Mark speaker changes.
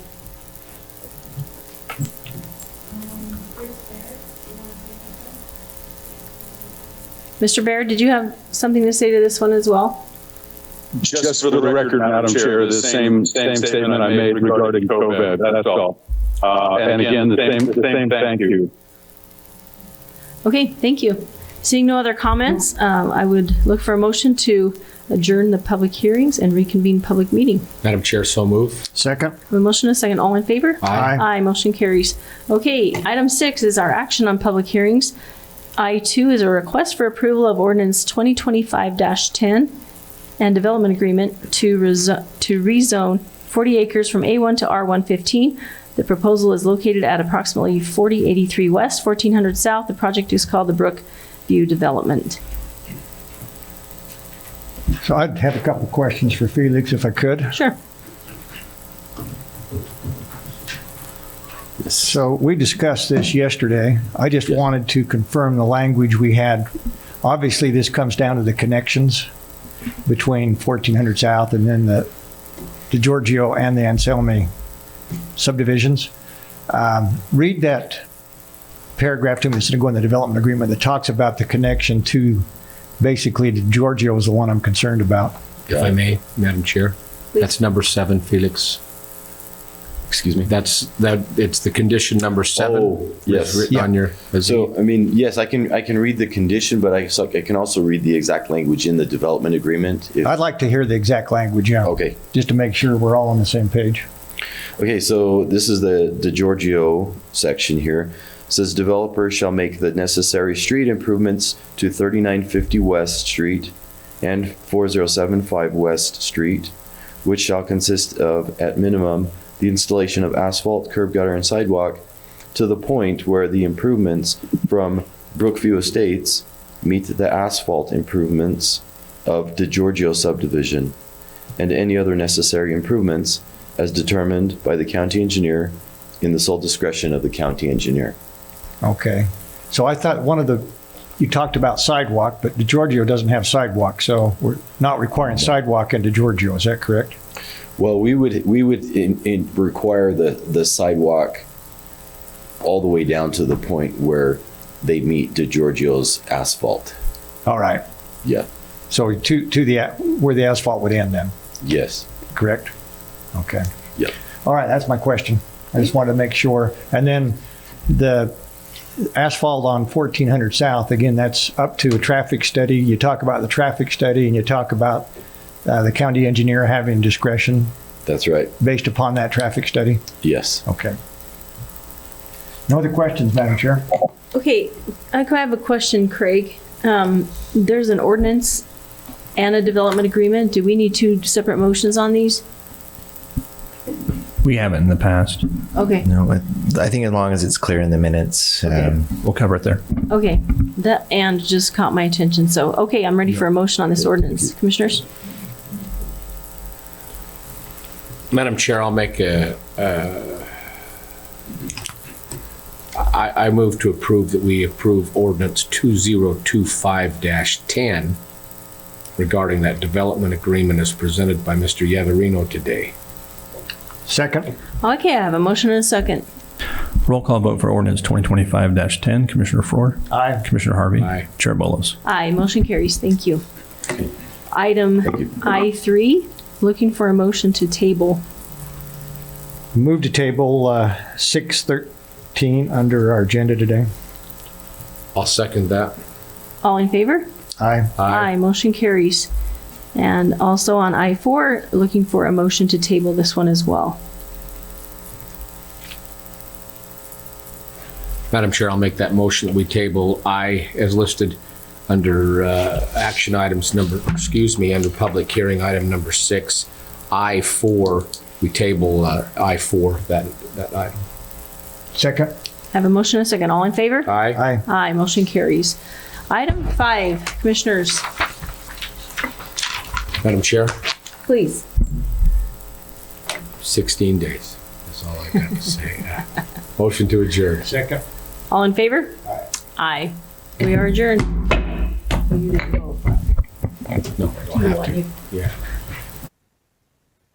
Speaker 1: Mr. Baird, did you have something to say to this one as well?
Speaker 2: Just for the record, Madam Chair, the same, same statement I made regarding COVID, that's all. Uh, And again, the same, the same thank you.
Speaker 1: Okay, thank you. Seeing no other comments, um, I would look for a motion to adjourn the public hearings and reconvene public meeting.
Speaker 3: Madam Chair, so move.
Speaker 4: Second.
Speaker 1: A motion and a second, all in favor?
Speaker 4: Aye.
Speaker 1: Aye, motion carries. Okay, item six is our action on public hearings. I two is a request for approval of ordinance twenty twenty-five ten and development agreement to rezo- to rezone forty acres from A one to R one fifteen. The proposal is located at approximately forty eighty-three west, fourteen hundred south. The project is called the Brookview Development.
Speaker 4: So I'd have a couple of questions for Felix if I could.
Speaker 1: Sure.
Speaker 4: So we discussed this yesterday. I just wanted to confirm the language we had. Obviously, this comes down to the connections between 1400 South and then the, the Giorgio and the Anselmi subdivisions. Um, Read that paragraph to me, it's going to go in the development agreement that talks about the connection to, basically, to Giorgio is the one I'm concerned about.
Speaker 3: If I may, Madam Chair, that's number seven, Felix. Excuse me, that's, that, it's the condition number
Speaker 5: Oh,
Speaker 3: seven.
Speaker 5: yes.
Speaker 3: Written on your, is
Speaker 5: So,
Speaker 3: it-
Speaker 5: I mean, yes, I can, I can read the condition, but I, so I can also read the exact language in the development agreement. if-
Speaker 4: I'd like to hear the exact language, yeah.
Speaker 5: Okay,
Speaker 4: just to make sure we're all on the same page.
Speaker 5: okay, so this is the, the Giorgio section here. Says developer shall make the necessary street improvements to thirty-nine fifty West Street and four zero seven five West Street, which shall consist of, at minimum, the installation of asphalt, curb gutter, and sidewalk to the point where the improvements from Brookview Estates meet the asphalt improvements of DeGiorgio subdivision and any other necessary improvements as determined by the county engineer in the sole discretion of the county engineer.
Speaker 4: Okay. So I thought one of the, you talked about sidewalk, but DeGiorgio doesn't have sidewalk, so we're not requiring sidewalk in DeGiorgio, is that correct?
Speaker 5: Well, we would, we would in, in require the, the sidewalk all the way down to the point where they meet DeGiorgio's asphalt.
Speaker 4: All right.
Speaker 5: Yeah,
Speaker 4: So to, to the, where the asphalt would end then,
Speaker 5: yes.
Speaker 4: correct? Okay.
Speaker 5: Yep.
Speaker 4: All right, that's my question. I just wanted to make sure. And then the asphalt on 1400 South, again, that's up to a traffic study. You talk about the traffic study and you talk about uh, the county engineer having discretion
Speaker 5: That's right.
Speaker 4: based upon that traffic study?
Speaker 5: Yes.
Speaker 4: Okay. No other questions, Madam Chair?
Speaker 1: Okay, I could have a question, Craig. Um, there's an ordinance and a development agreement. Do we need two separate motions on these?
Speaker 6: We haven't in the past.
Speaker 1: Okay,
Speaker 7: No, but I think as long as it's clear in the minutes, um,
Speaker 6: We'll cover it there.
Speaker 1: okay. That and just caught my attention. So, okay, I'm ready for a motion on this ordinance. Commissioners?
Speaker 3: Madam Chair, I'll make a, uh, I, I move to approve that we approve ordinance two zero two five ten regarding that development agreement as presented by Mr. Yaverino today.
Speaker 4: Second?
Speaker 1: Okay, I have a motion and a second.
Speaker 6: Roll call vote for ordinance 2025-10. Commissioner Ford?
Speaker 4: Aye.
Speaker 6: Commissioner Harvey?
Speaker 3: Aye.
Speaker 6: Chair Bolos?
Speaker 1: Aye, motion carries. Thank you. Item I3, looking for a motion to table.
Speaker 4: Move to table uh, 613 under our agenda today.
Speaker 3: I'll second that.
Speaker 1: All in favor?
Speaker 4: Aye.
Speaker 1: Aye, motion carries. And also on I4, looking for a motion to table this one as well.
Speaker 3: Madam Chair, I'll make that motion that we table I as listed under uh, action items number, excuse me, under public hearing item number six, I4, we table uh, I4, that, that item.
Speaker 4: Second?
Speaker 1: Have a motion and a second. All in favor?
Speaker 3: Aye.
Speaker 4: Aye.
Speaker 1: Aye, motion carries. Item five, commissioners,
Speaker 3: Madam Chair,
Speaker 1: please.
Speaker 3: 16 days. That's all I got to say. Uh, Motion to adjourn.
Speaker 4: Second.
Speaker 1: All in favor? Aye. We are adjourned.
Speaker 3: No, I don't have to. Yeah.